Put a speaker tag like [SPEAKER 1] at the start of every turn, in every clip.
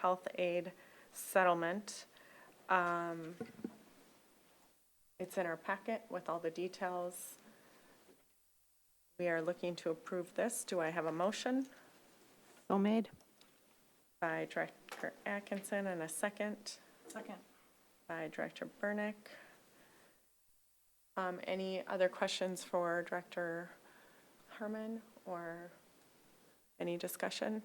[SPEAKER 1] health aid settlement. Um, It's in our packet with all the details. We are looking to approve this. Do I have a motion
[SPEAKER 2] So made.
[SPEAKER 1] by Director Atkinson and a second?
[SPEAKER 3] Second.
[SPEAKER 1] by Director Burnick. Um, Any other questions for Director Harmon or any discussion?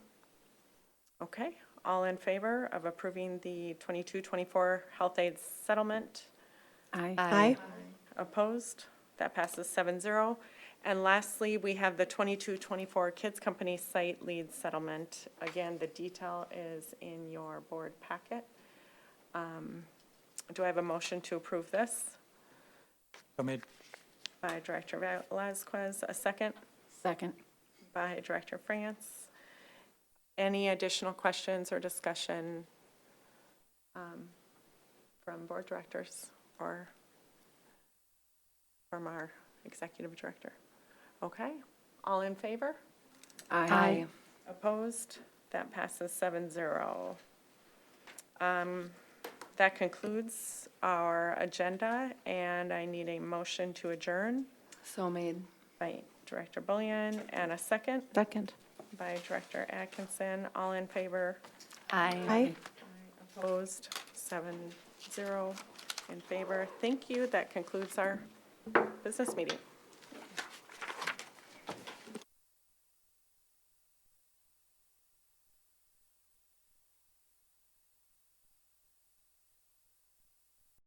[SPEAKER 1] Okay, all in favor of approving the 22-24 health aid settlement?
[SPEAKER 2] Aye.
[SPEAKER 4] Aye.
[SPEAKER 1] Opposed? That passes 7-0. And lastly, we have the 22-24 Kids Company Site Lead Settlement. Again, the detail is in your board packet. Um, Do I have a motion to approve this?
[SPEAKER 5] So made.
[SPEAKER 1] By Director Velazquez, a second
[SPEAKER 2] Second.
[SPEAKER 1] by Director France. Any additional questions or discussion um, from board directors or from our executive director? Okay, all in favor?
[SPEAKER 2] Aye.
[SPEAKER 1] Opposed? That passes 7-0. Um, That concludes our agenda, and I need a motion to adjourn
[SPEAKER 2] So made.
[SPEAKER 1] by Director Bullion and a second.
[SPEAKER 2] Second.
[SPEAKER 1] by Director Atkinson. All in favor?
[SPEAKER 2] Aye.
[SPEAKER 1] Opposed? Seven, zero in favor. Thank you. That concludes our business meeting.